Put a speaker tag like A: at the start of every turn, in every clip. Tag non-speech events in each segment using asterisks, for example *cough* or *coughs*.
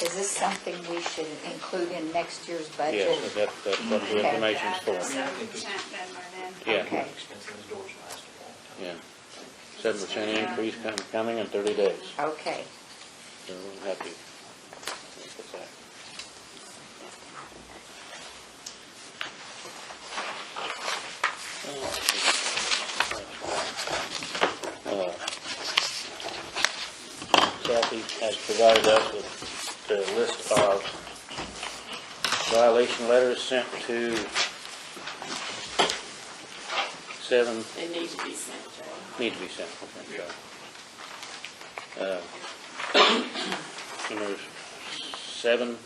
A: Is this something we should include in next year's budget?
B: Yes, that, that's what the
A: Okay.
B: information's
C: Yeah,
B: for,
C: Seven percent Denver then.
B: Yeah.
A: Okay.
D: Expenses doors last a long time.
B: yeah. Seven percent increase com- coming in thirty days,
A: Okay,
B: so we're happy with that. Uh, Kathy has provided us with the list of violation letters sent to seven
E: They need to be sent.
B: Need to be sent, thank God. *coughs* There's Uh, seven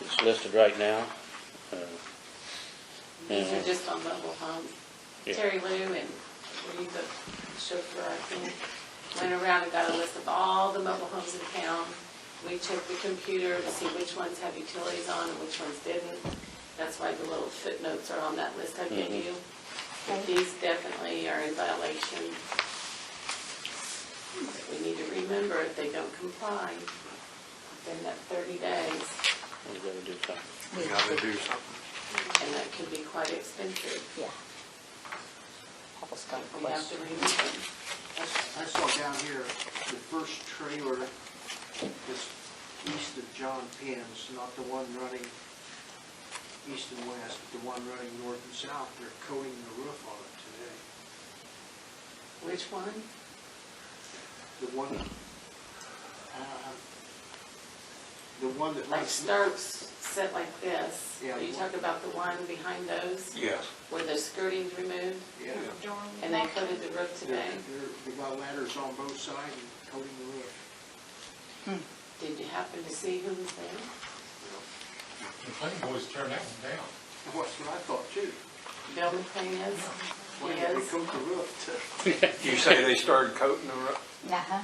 B: that's listed right now. Uh,
E: These are
B: Mhm.
E: just on mobile homes.
B: Yeah.
E: Terry Lou and Reed, the chauffeur, I think, went around and got a list of all the mobile homes in town. We checked the computer to see which ones have utilities on and which ones didn't. That's why the little footnotes are on that list I gave
B: Mhm.
E: you. But These definitely are in violation. We need to remember if they don't comply, then that 30 days,
B: We gotta do something.
A: we
F: Gotta
A: should-
F: do something.
E: and that could be quite expensive.
A: yeah. I was gonna
E: We have to
A: question.
E: remove them.
G: I saw down here, the first trailer is east of John Penn's, not the one running east and west, but the one running north and south. They're coating the roof on it today.
E: Which one?
G: The one, uh, the one that
E: Like
G: runs,
E: Starks set like this.
G: Yeah.
E: Are you talking about the one behind those
F: Yes.
E: where the skirting's removed
G: yeah,
C: Dorm.
E: and they coated the roof
G: they're,
E: today?
G: they're, they got ladders on both sides and coating the roof.
E: Did you happen to see who was there?
H: The planning board's turned that one down.
G: That's what I thought too.
E: Bill McLean is?
G: Why did they
E: Yes.
G: coat the roof to?
F: You say they started coating the roof?
A: Uh-huh.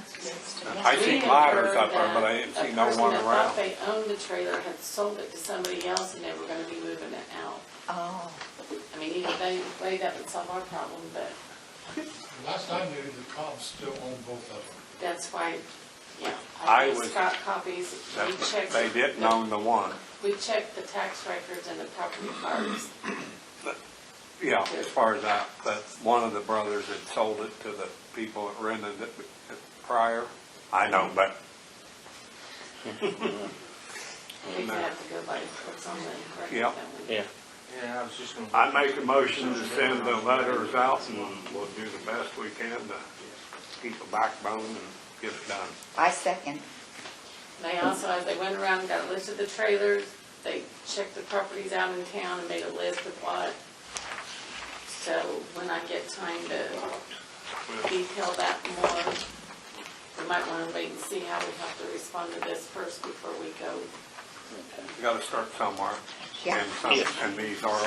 F: I
E: We
F: seen
E: had
F: ladders
E: heard
F: up there, but I
E: that
F: didn't see no
E: A person
F: one
E: that thought
F: around.
E: they owned the trailer had sold it to somebody else and they were gonna be moving it out.
A: Oh,
E: I mean, either they, way, that would solve our problem, but
H: Last I knew, the cops still owned both of them.
E: that's why, yeah.
F: I
E: gave
F: was-
E: Scott copies, we checked.
F: They didn't own the one.
E: We checked the tax records and the property cards.
F: Yeah, as far as that, but one of the brothers had sold it to the people that rented it prior. I know, but
E: We would have to go by what's on the record.
F: Yeah.
E: that we-
B: Yeah,
D: Yeah, I was just gonna.
F: I make a motion to send the letters out and we'll do the best we can to keep a backbone and get it done.
A: I second.
E: They also, as they went around, and got a list of the trailers, they checked the properties out in town and made a list of what. So when I get time to detail that more, we might want to wait and see how we have to respond to this first before we go.
F: You gotta start somewhere.
A: Yeah.
F: And some, and these are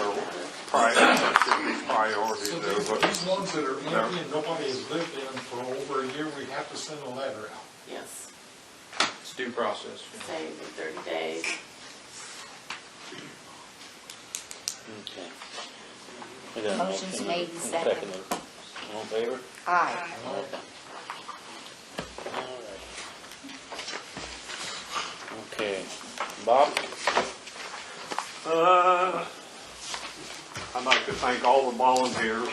F: priorities, should be priorities.
H: So
F: They're
H: these
F: what-
H: these ones that are
F: they're-
H: empty and nobody has lived in them for over a year, we have to send a letter out.
E: Yes,
D: It's due process. you know.
E: say the 30 days.
B: okay. We got a
A: Motion's
B: motion
A: made and seconded.
B: seconded. All in favor?
A: Aye.
B: All right. Okay, Bob?
F: Uh, I'd like to thank all the volunteers.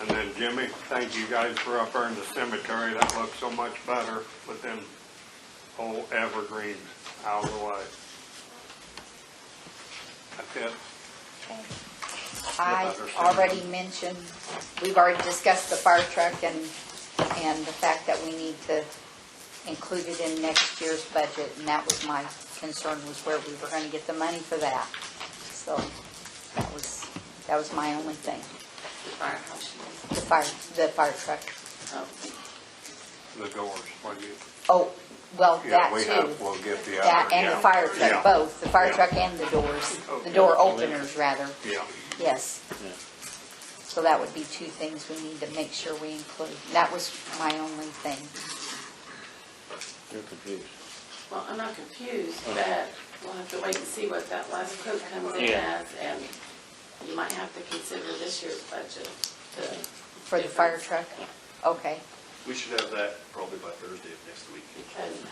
F: And then Jimmy, thank you guys for up there in the cemetery. That looks so much better with them whole evergreens out of the way. That's it.
A: I
F: understand.
A: already mentioned, we've already discussed the fire truck and, and the fact that we need to include it in next year's budget, and that was my concern, was where we were gonna get the money for that. So, that was, that was my only thing,
E: The firehouse.
A: the fire, the fire truck.
E: Oh.
F: The doors, what do you?
A: Oh, well, that
F: Yeah, we have,
A: too.
F: we'll get the other.
A: That and the
F: yeah,
A: fire
F: yeah,
A: truck, both, the fire
F: yeah.
A: truck and the doors, the
F: Okay.
A: door openers, rather,
F: Yeah.
A: yes.
B: Yeah.
A: So that would be two things we need to make sure we include. That was my only thing.
B: You're confused.
E: Well, I'm not confused, but we'll have to wait and see what that last quote comes in
B: Yeah.
E: as, and you might have to consider this year's budget. to-
A: For the fire truck? Okay.
I: We should have that probably by Thursday of next week.
E: Because